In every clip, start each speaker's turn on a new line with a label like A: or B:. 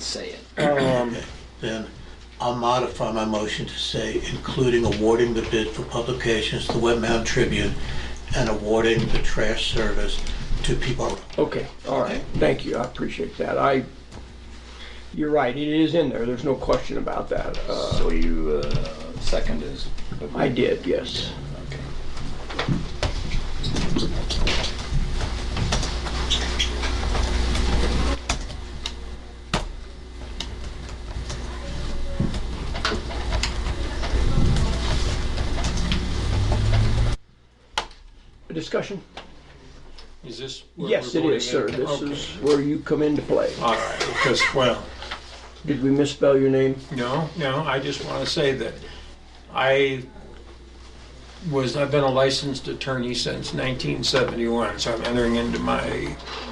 A: say it.
B: Um,
C: Then I'll modify my motion to say, including awarding the bid for publications to Web Mountain Tribune and awarding the trash service to people.
B: Okay, all right, thank you, I appreciate that. I, you're right, it is in there, there's no question about that. Uh,
A: So you, uh, second is?
B: I did, yes.
A: Okay.
B: Discussion?
D: Is this? where
B: Yes,
D: we're
B: it is, sir,
D: voting in?
B: this
D: Okay.
B: is where you come into play.
D: All right, because, well,
B: Did we misspell your name?
D: no, no, I just want to say that I was, I've been a licensed attorney since 1971, so I'm entering into my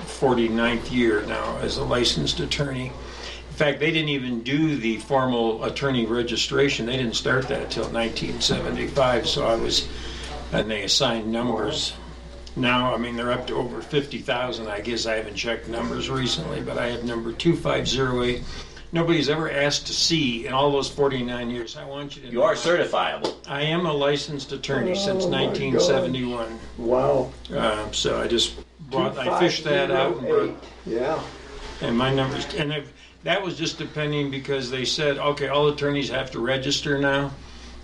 D: 49th year now as a licensed attorney. In fact, they didn't even do the formal attorney registration, they didn't start that until 1975, so I was, and they assigned numbers. Now, I mean, they're up to over 50,000, I guess I haven't checked numbers recently, but I have number 2508. Nobody's ever asked to see in all those 49 years, I want you to.
E: You are certifiable.
D: I am a licensed attorney since
B: Oh, my
D: 1971,
B: Wow.
D: Um, so I just brought, I fished that out and brought,
B: 2508. Yeah,
D: and my numbers, and if, that was just depending because they said, okay, all attorneys have to register now.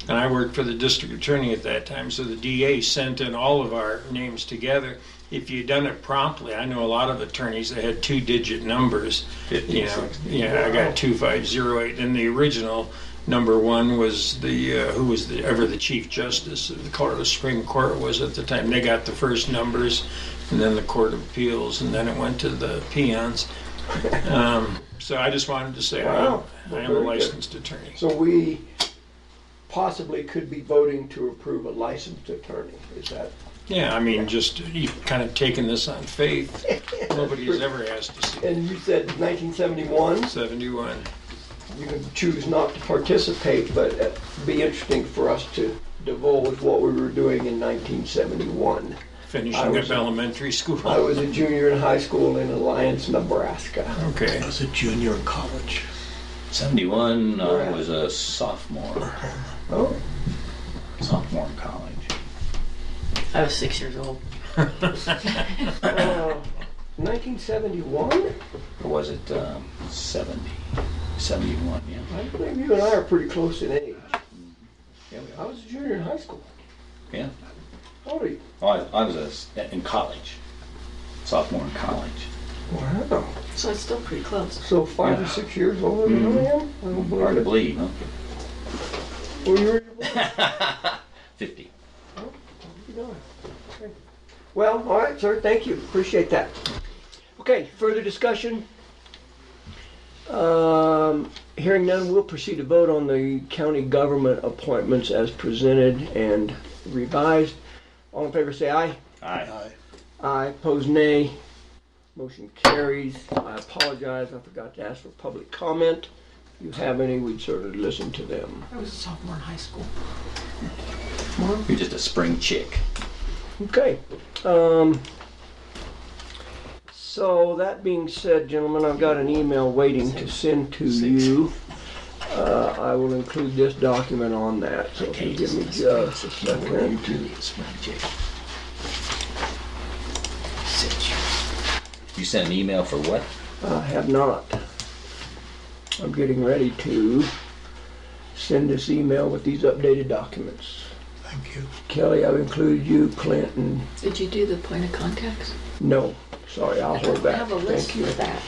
D: And I worked for the district attorney at that time, so the DA sent in all of our names together. If you'd done it promptly, I know a lot of attorneys that had two-digit numbers. You know, yeah, I got two five zero eight, and the original number one was the, uh, who was the, ever the chief justice of the Colorado Supreme Court was at the time. They got the first numbers, and then the Court of Appeals, and then it went to the peons. Um, So I just wanted to say, I
B: Wow.
D: I
B: Very
D: am a
B: good.
D: licensed attorney.
B: so we possibly could be voting to approve a licensed attorney, is that?
D: Yeah, I mean, just, you've kind of taken this on faith. Nobody has ever asked to see
B: And you said 1971?
D: 71.
B: you can choose not to participate, but it'd be interesting for us to divulge what we were doing in 1971. I
D: finishing
B: was-
D: up elementary school.
B: I was a junior in high school in Alliance, Nebraska.
D: Okay.
C: I was a junior in college.
E: 71, I
B: Right.
E: was a sophomore,
B: Oh,
E: sophomore in college.
F: I was six years old.
B: uh, 1971?
E: Or was it um, 70? 71, yeah.
B: I believe you and I are pretty close in age.
E: Yeah, we
B: I was a junior in high school.
E: Yeah.
B: How old are you?
E: Oh, I, I was a s in college, sophomore in college.
B: Wow.
F: So it's still pretty close.
B: So five or six years older than I am? I don't Mm-hmm. believe
E: Hard to
B: it.
E: believe, huh?
B: Well, you were
E: 50.
B: Well, all right, sir, thank you, appreciate that. Okay, further discussion? Um, Hearing none, we'll proceed to vote on the county government appointments as presented and revised. All in favor, say aye.
E: Aye.
B: Aye, pose nay. Motion carries. I apologize, I forgot to ask for public comment. If you have any, we'd certainly listen to them.
F: I was a sophomore in high school.
E: You're just a spring chick.
B: Okay. Um, so that being said, gentlemen, I've got an email waiting to send to you. Uh, I will include this document on that, so if you give me just a second.
E: really a spring chick. You sent an email for what?
B: I have not. I'm getting ready to send this email with these updated documents.
C: Thank you.
B: Kelly, I've included you, Clinton.
F: Did you do the point of contacts?
B: No, sorry, I'll hold
F: I
B: back.
F: have a
B: Thank
F: list
B: you.
F: for that.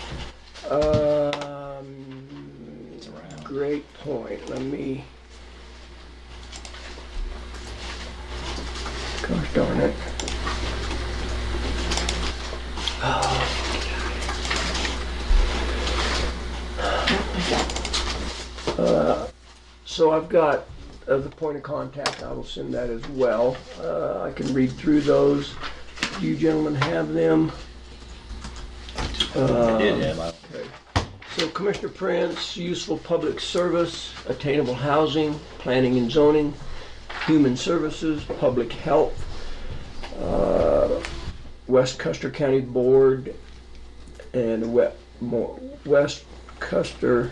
B: Um,
E: It's around.
B: Great point. Let me. Gosh darn it. Uh, So I've got uh, the point of contact. I will send that as well. Uh, I can read through those. Do you gentlemen have them?
E: I did have. I,
B: So Commissioner Prince, useful public service, attainable housing, planning and zoning, human services, public health, uh, West Custer County Board, and the We- Mo- West Custer